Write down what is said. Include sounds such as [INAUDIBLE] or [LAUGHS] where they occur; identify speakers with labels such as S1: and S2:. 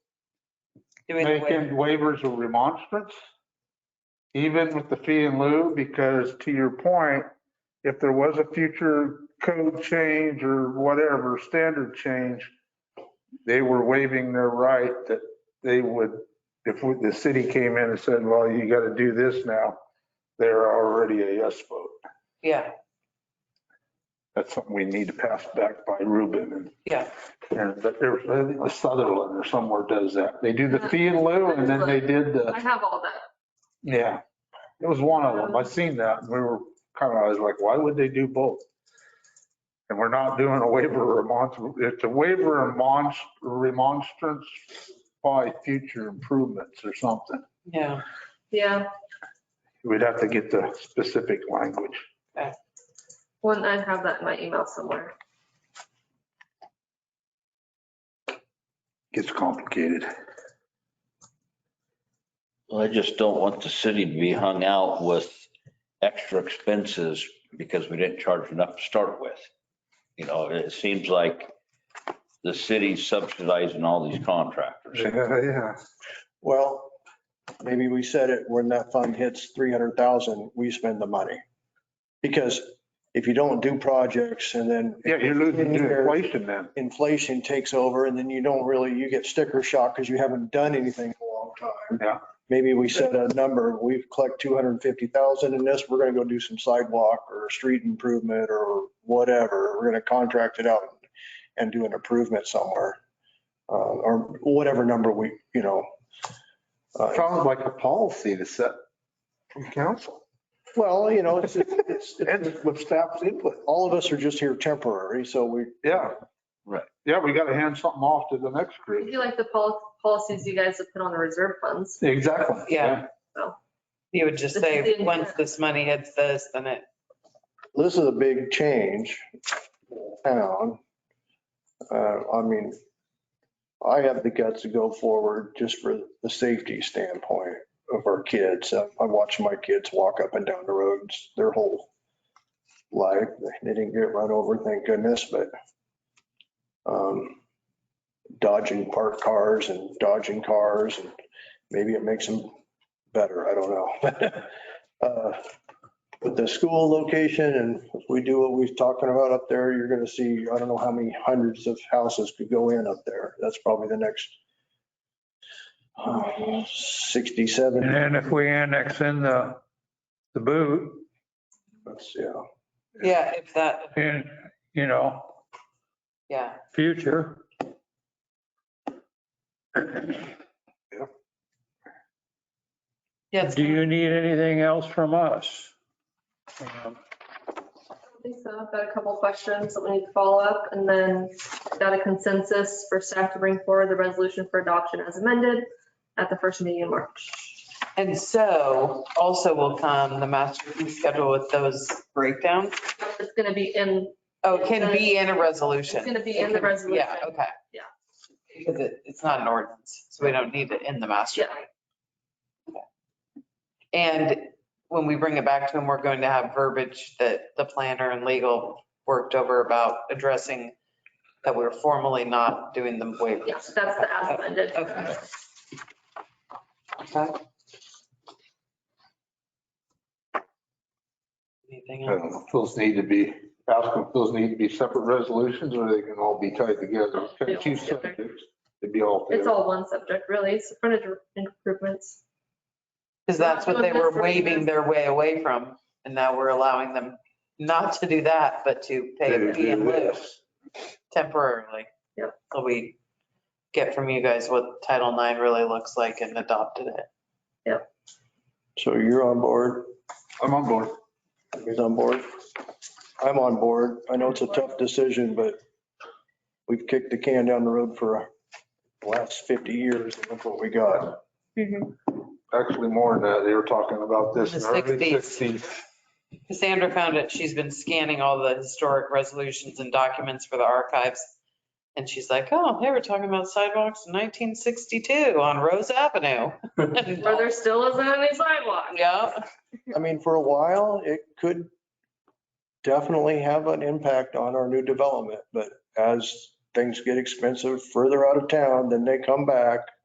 S1: doing the
S2: making
S1: waiver.
S2: waivers or remonstrance, even with the fee in lieu, because to your point, if there was a future code change or whatever, standard change, they were waiving their right that they would, if the city came in and said, well, you got to do this now, they're already a yes vote.
S1: Yeah,
S2: That's something we need to pass back by Ruben and
S1: yeah.
S2: and but there's, I think the Sutherland or somewhere does that. They do the fee in lieu and then they did
S3: I
S2: the,
S3: have all that.
S2: yeah. It was one of them. I seen that and we were kind of, I was like, why would they do both? And we're not doing a waiver or remons, it's a waiver and mons- remonstrance by future improvements or something.
S1: Yeah.
S3: Yeah,
S2: We'd have to get the specific language.
S3: one, I have that in my email somewhere.
S2: Gets complicated.
S4: Well, I just don't want the city to be hung out with extra expenses because we didn't charge enough to start with. You know, it seems like the city's subsidizing all these contractors.
S2: Yeah,
S5: Well, maybe we said it, when that fund hits 300,000, we spend the money. Because if you don't do projects and then
S2: yeah, you're losing your inflation then.
S5: inflation takes over and then you don't really, you get sticker shock because you haven't done anything in a long time.
S2: Yeah.
S5: Maybe we set a number, we've collected 250,000 in this, we're going to go do some sidewalk or street improvement or whatever. We're going to contract it out and do an improvement somewhere. uh, Or whatever number we, you know. uh,
S2: Sounds like a policy to set from council.
S5: Well, you know, it's, it's, it's-
S2: And with staff's input.
S5: all of us are just here temporary, so we,
S2: Yeah.
S4: Right.
S2: Yeah, we got to hand something off to the next
S3: It'd
S2: group.
S3: be like the pol- policies you guys have put on the reserve funds.
S2: Exactly.
S1: Yeah. You would just
S3: This is
S1: say,
S3: the-
S1: once this money hits this, then it,
S5: this is a big change. Town. Uh, I mean, I have the guts to go forward just for the safety standpoint of our kids. I watch my kids walk up and down the roads their whole life. They didn't get run over, thank goodness, but um, dodging parked cars and dodging cars and maybe it makes them better. I don't know. [LAUGHS] Uh, But the school location and if we do what we're talking about up there, you're going to see, I don't know how many hundreds of houses could go in up there. That's probably the next uh, 60, 70.
S6: And then if we annex in the, the boot
S5: That's, Yeah.
S1: yeah, if that,
S6: in, you know,
S1: yeah.
S6: future,
S1: Yeah, it's-
S6: do you need anything else from us? Um,
S3: I think so. I've got a couple questions that we need to follow up and then got a consensus for staff to bring forward the resolution for adoption as amended at the first meeting in March.
S1: and so also will come the master fee schedule with those breakdowns.
S3: It's going to be in,
S1: Oh, it can be in a
S3: it's
S1: resolution.
S3: going to be in the
S1: It can-
S3: resolution.
S1: Yeah, okay.
S3: Yeah.
S1: Because it, it's not an ordinance, so we don't need it in the master.
S3: Yeah.
S1: plan. Okay. And when we bring it back to him, we're going to have verbiage that the planner and legal worked over about addressing that we're formally not doing the waivers.
S3: Yes, that's the as amended.
S1: Okay. Okay. Anything
S2: I
S1: else?
S2: don't know. Uh, Those need to be, ask them if those need to be separate resolutions or they can all be tied together.
S3: They all
S2: Two
S3: together.
S2: subjects, It'd be all.
S3: It's
S2: together.
S3: all one subject really. It's frontage improvements.
S1: Because that's what they were waving their way away from, and now we're allowing them not to do that, but to pay a fee in lieu temporarily.
S3: Yep.
S1: Till we get from you guys what Title IX really looks like and adopted it.
S5: So you're on board,
S2: I'm on board.
S5: he's on board. I'm on board. I know it's a tough decision, but we've kicked the can down the road for the last 50 years and look what we got.
S2: Actually, more than that, they were talking about this in
S1: The
S2: the early
S1: 60s.
S2: 60s.
S1: Cassandra found it, she's been scanning all the historic resolutions and documents for the archives. And she's like, oh, they were talking about sidewalks in 1962 on Rose Avenue. [LAUGHS]
S3: Where there still isn't any sidewalk.
S1: Yeah,
S5: I mean, for a while, it could definitely have an impact on our new development, but as things get expensive further out of town, then they come back